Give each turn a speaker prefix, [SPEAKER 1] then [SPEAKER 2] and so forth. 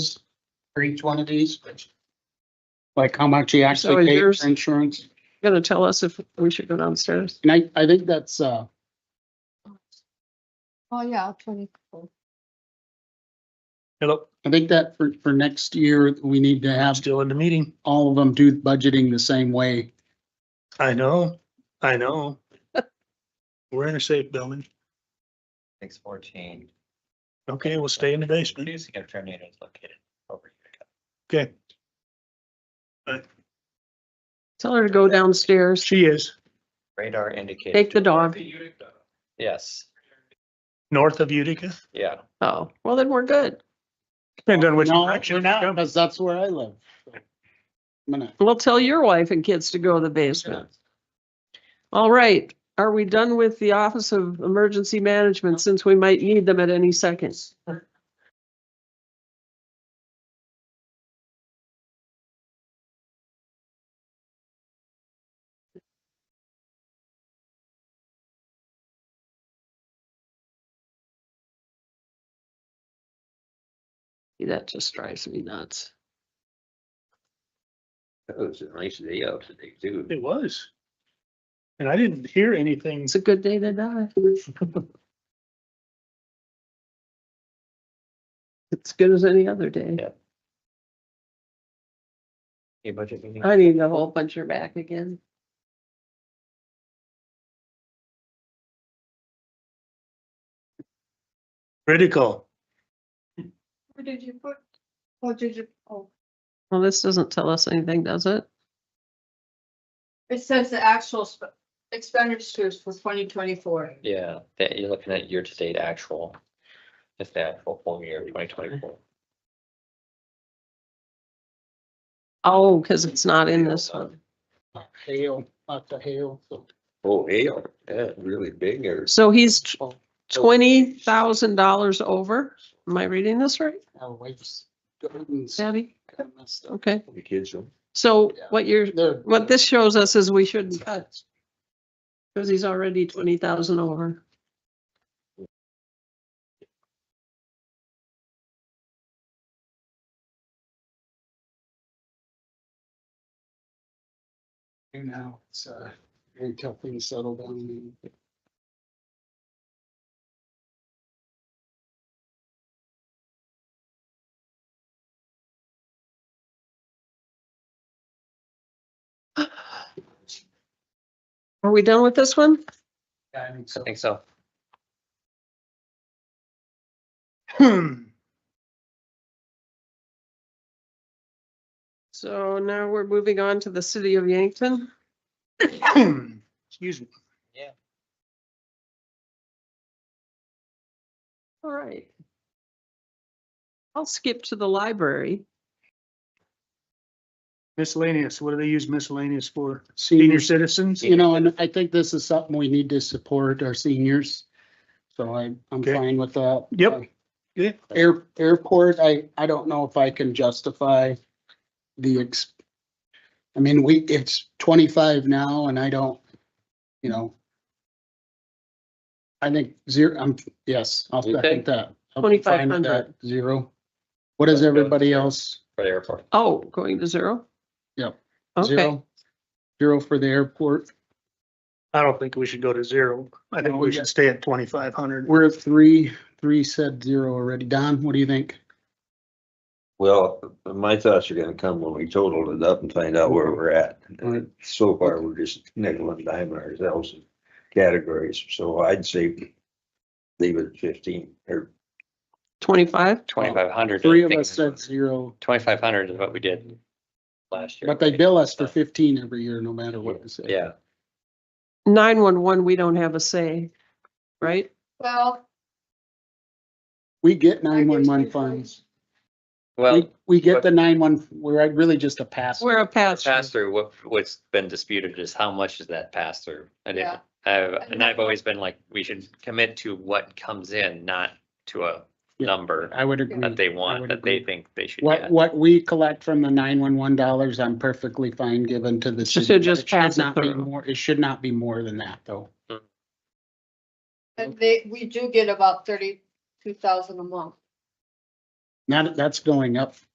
[SPEAKER 1] for each one of these? Like how much you
[SPEAKER 2] So
[SPEAKER 1] actually pay
[SPEAKER 2] yours-
[SPEAKER 1] for insurance?
[SPEAKER 2] Gonna tell us if we should go downstairs.
[SPEAKER 1] And I, I think that's, uh,
[SPEAKER 3] Oh, yeah, twenty-four.
[SPEAKER 4] Hello,
[SPEAKER 1] I think that for, for next year, we need to
[SPEAKER 4] I'm
[SPEAKER 1] have
[SPEAKER 4] still in the meeting.
[SPEAKER 1] all of them do budgeting the same way.
[SPEAKER 4] I know, I know. We're in a safe building.
[SPEAKER 5] Six fourteen.
[SPEAKER 4] Okay, we'll stay in the basement.
[SPEAKER 5] Producing a tornado is located over here.
[SPEAKER 4] Okay,
[SPEAKER 2] Tell her to go downstairs.
[SPEAKER 4] she is
[SPEAKER 5] Radar indicated.
[SPEAKER 2] Take the dog.
[SPEAKER 5] Yes,
[SPEAKER 4] north of Utica.
[SPEAKER 5] yeah.
[SPEAKER 2] Oh, well, then we're good.
[SPEAKER 4] Depends on which
[SPEAKER 1] No,
[SPEAKER 4] direction.
[SPEAKER 1] we're
[SPEAKER 4] it's
[SPEAKER 1] not,
[SPEAKER 4] coming.
[SPEAKER 1] Cause that's where I live. I'm gonna,
[SPEAKER 2] Well, tell your wife and kids to go to the basement. All right, are we done with the Office of Emergency Management since we might need them at any second? That just drives me nuts.
[SPEAKER 6] That was a nice day out today too.
[SPEAKER 4] It was. And I didn't hear anything.
[SPEAKER 2] It's a good day to die. It's good as any other day.
[SPEAKER 5] Yeah. Okay, budget meeting.
[SPEAKER 2] I need a whole bunch of back again.
[SPEAKER 4] Critical.
[SPEAKER 3] Where did you put? What did you, oh,
[SPEAKER 2] Well, this doesn't tell us anything, does it?
[SPEAKER 3] it says the actual sp- expenditures for twenty twenty-four.
[SPEAKER 5] Yeah, that you're looking at year-to-date actual. It's the actual full year, twenty twenty-four.
[SPEAKER 2] Oh, because it's not in this one.
[SPEAKER 1] hail, not the hail, so.
[SPEAKER 6] Oh, hail, yeah, really big or
[SPEAKER 2] So he's twenty thousand dollars over. Am I reading this right,
[SPEAKER 1] Our wife's gardens
[SPEAKER 2] Debbie?
[SPEAKER 1] got messed up.
[SPEAKER 2] Okay,
[SPEAKER 6] the kids. don't-
[SPEAKER 2] so what you're,
[SPEAKER 1] They're-
[SPEAKER 2] what this shows us is we shouldn't cut. Because he's already twenty thousand over.
[SPEAKER 1] You know, it's, uh, until things settle down.
[SPEAKER 2] Are we done with this one?
[SPEAKER 1] Yeah, I think
[SPEAKER 5] I
[SPEAKER 1] so.
[SPEAKER 5] think so.
[SPEAKER 4] Hmm.
[SPEAKER 2] So now we're moving on to the city of Yankton.
[SPEAKER 4] Excuse me.
[SPEAKER 2] All right. I'll skip to the library.
[SPEAKER 4] Miscellaneous. What do they use miscellaneous for? Senior
[SPEAKER 1] Seniors,
[SPEAKER 4] citizens?
[SPEAKER 1] you know, and I think this is something we need to support our seniors. So I, I'm
[SPEAKER 4] Okay.
[SPEAKER 1] fine with that.
[SPEAKER 4] Yep.
[SPEAKER 1] Uh,
[SPEAKER 4] Good.
[SPEAKER 1] Air, airport, I, I don't know if I can justify the ex. I mean, we, it's twenty-five now and I don't, you know. I think zero, I'm, yes, I'll
[SPEAKER 5] Okay.
[SPEAKER 1] second that. I'll be fine with
[SPEAKER 2] 2,500.
[SPEAKER 1] that, Zero. What is everybody else?
[SPEAKER 5] For the airport.
[SPEAKER 2] Oh, going to zero?
[SPEAKER 1] Yep.
[SPEAKER 2] Okay,
[SPEAKER 1] Zero. Zero for the airport.
[SPEAKER 4] I don't think we should go to zero. I think
[SPEAKER 1] No,
[SPEAKER 4] we
[SPEAKER 1] we
[SPEAKER 4] should
[SPEAKER 1] got-
[SPEAKER 4] stay at twenty-five hundred.
[SPEAKER 1] We're at three, three said zero already. Don, what do you think?
[SPEAKER 6] Well, my thoughts are gonna come when we total it up and find out where we're at.
[SPEAKER 1] Right.
[SPEAKER 6] So far, we're just nickel and diming ourselves in categories, so I'd say leave it at fifteen or
[SPEAKER 2] twenty-five?
[SPEAKER 5] Twenty-five hundred.
[SPEAKER 1] Three of us said zero,
[SPEAKER 5] Twenty-five hundred is what we did last year.
[SPEAKER 1] but they
[SPEAKER 5] right?
[SPEAKER 1] bill us for fifteen every year, no matter what we say.
[SPEAKER 5] Yeah,
[SPEAKER 2] Nine-one-one, we don't have a say, right?
[SPEAKER 3] Well.
[SPEAKER 1] We get
[SPEAKER 3] I guess
[SPEAKER 1] nine-one-one
[SPEAKER 3] we-
[SPEAKER 1] funds.
[SPEAKER 5] well,
[SPEAKER 1] We, we get
[SPEAKER 5] but-
[SPEAKER 1] the nine-one, we're really just a pass.
[SPEAKER 2] We're a pass.
[SPEAKER 5] pass through, what, what's been disputed is how much is that pass through? And if,
[SPEAKER 3] Yeah.
[SPEAKER 5] I've- and I've always been like, we should commit to what comes in, not to a
[SPEAKER 1] Yeah.
[SPEAKER 5] number
[SPEAKER 1] I would
[SPEAKER 5] that
[SPEAKER 1] agree. I
[SPEAKER 5] they want,
[SPEAKER 1] would
[SPEAKER 5] that they
[SPEAKER 1] agree.
[SPEAKER 5] think they should
[SPEAKER 1] What,
[SPEAKER 5] get.
[SPEAKER 1] what we collect from the nine-one-one dollars, I'm perfectly fine given to the city.
[SPEAKER 2] So just
[SPEAKER 1] It should
[SPEAKER 2] pass it
[SPEAKER 1] not be
[SPEAKER 2] through.
[SPEAKER 1] more- It should not be more than that, though.
[SPEAKER 3] And they, we do get about thirty-two thousand a month.
[SPEAKER 1] Not, that's going up